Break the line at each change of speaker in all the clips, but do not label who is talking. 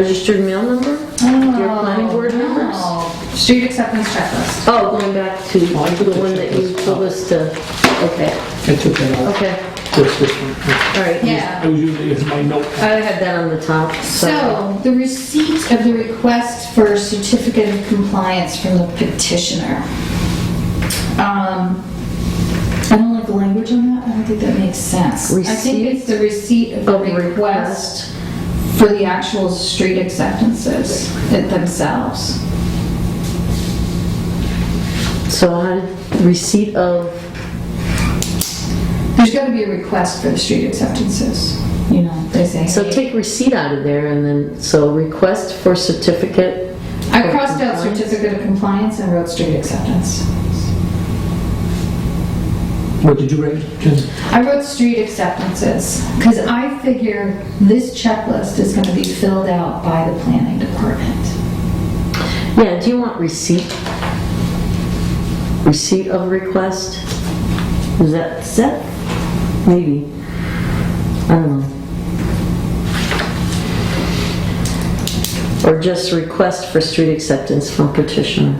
Registered mail number? Your planning board members?
Oh, Street acceptance checklist.
Oh, going back to the
I could
one that you
check this
told
out.
us to, okay,
I took that out.
okay,
Just this one.
all right.
I
Yeah.
was using it as my note.
I had that on the top, so.
So, the receipt of the request for certificate of compliance from the petitioner. Um, I don't like the language on that, I don't think that makes sense. I think it's the receipt of the
Receipt of
request for the actual street acceptances it- themselves.
So I had receipt of,
There's gotta be a request for the street acceptances, you know, they say.
so
"Hey,
take receipt out of there and then, so request for certificate.
I crossed out
Compliance.
certificate of compliance and wrote street acceptance.
What did you write? Jen?
I wrote street acceptances, because I figure this checklist is gonna be filled out by the planning department.
Yeah, do you want receipt? Receipt of request? Is that set? Maybe. I don't know. Or just request for street acceptance from petitioner.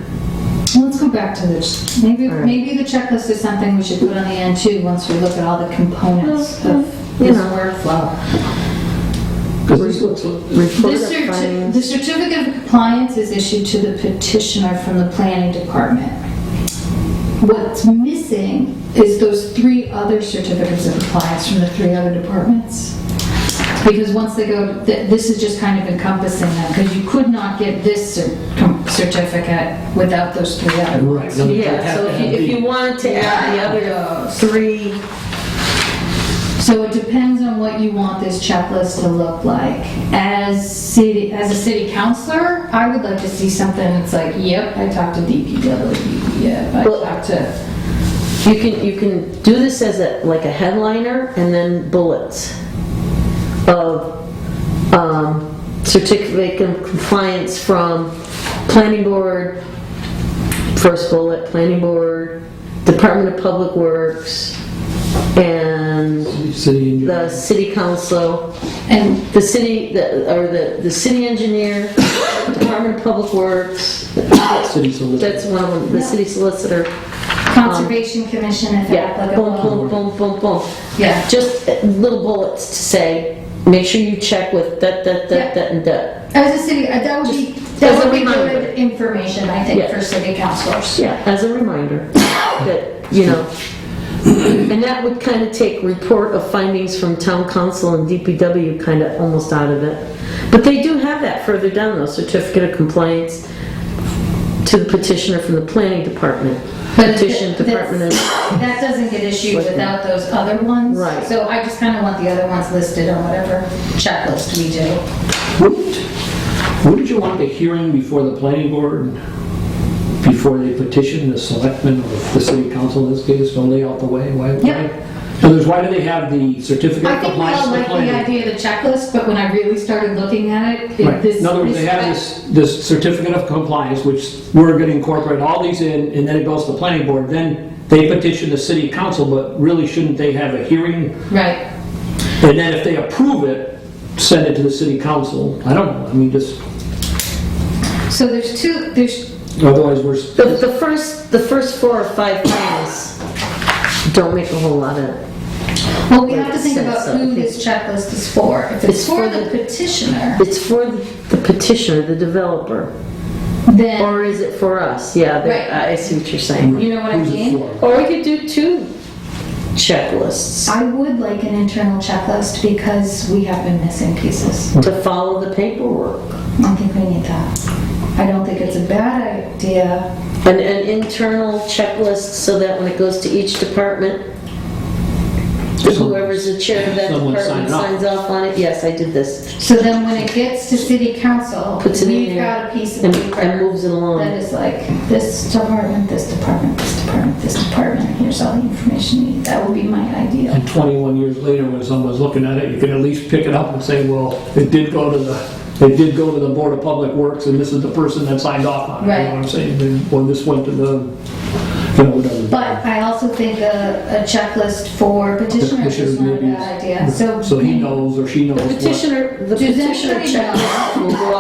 Well, Let's go back to this, maybe,
All right.
maybe the checklist is something we should put on the end too, once we look at all the components
Mhm,
of
you
this
know.
workflow.
'Cause this looks,
Report
The
of
certi-
findings.
the certificate of compliance is issued to the petitioner from the planning department. What's missing is those three other certificates of compliance from the three other departments. Because once they go, th- this is just kind of encompassing them, because you could not get this cer- com- certificate without those three other
right.
ones.
now you
Yeah,
have
so
to
if you,
have
if you
these.
wanted to add the other
Those.
three,
So it depends on what you want this checklist to look like. As city, as a city councillor, I would like to see something that's like, yep, I talked to DPW, yep, I
Well-
talked to,
you can, you can do this as a, like a headliner and then bullets of, um, certificate of compliance from planning board, first bullet, planning board, Department of Public Works, and
City engineer.
the city council,
and
the city, the- or the, the city engineer, Department of Public Works,
city solicitor.
That's one of them, the city solicitor.
Conservation Commission if
Yeah, boom,
applicable.
boom, boom, boom, boom.
Yeah,
Just uh, little bullets to say, make sure you check with that, that,
Yeah.
that, that, and that.
as a city, uh, that would be,
as
that
a
would be
reminder.
good information, I think,
Yeah.
for city councillors.
Yeah, as a reminder that, you know. And that would kind of take report of findings from town council and DPW kind of almost out of it. But they do have that further down though, certificate of compliance to the petitioner from the planning department.
But
Petition
th- that's-
department of
That doesn't get issued without those other ones.
Right.
So I just kind of want the other ones listed on whatever checklist we do.
Wouldn't, wouldn't you want the hearing before the planning board, before they petition the selectmen or the city council in this case, don't lay out the way? Why? why-
Yeah.
In other words, why do they have the certificate
I
of
think we
compliance
all
to the
like the
planning?
idea of the checklist, but when I really started looking at it, it-
Right.
this.
In other words, they have this, this certificate of compliance, which we're gonna incorporate all these in, and then it goes to the planning board, then they petition the city council, but really shouldn't they have a hearing?
Right.
And then if they approve it, send it to the city council? I don't know, I mean, just,
So there's two, there's,
otherwise we're, s-
The, the first, the first four or five things don't make a whole lot of,
well, we have to think
Right,
about
so-
who this checklist is for. If it's
It's for
for the
the-
petitioner,
it's for the petitioner, the developer,
then,
or is it for us? Yeah,
Right.
the- I see what you're saying.
you know what I
who's it
mean?
for?
Or we could do two checklists
I would like an internal checklist because we have been missing pieces.
to follow the paperwork.
I think we need that. I don't think it's a bad idea.
An, an internal checklist so that when it goes to each department, whoever's the chair of that
Someone sign
department
it off.
signs off on it. Yes, I did this.
So then when it gets to city council,
Puts it in
we've
there
got a piece of
And,
paper.
and moves it
That
along.
is like, this department, this department, this department, this department, here's all the information you need. That would be my ideal.
And 21 years later, when someone's looking at it, you can at least pick it up and say, well, it did go to the, it did go to the Board of Public Works, and this is the person that signed off on it. You know
Right.
what I'm saying? When this went to the No, whatever.
But I also think a, a checklist for petitioners is
Petitioners
not a
maybe.
bad idea, so.
So he knows or she knows
The
what.
petitioner, the
Does
petitioner
anybody know?
checklist will go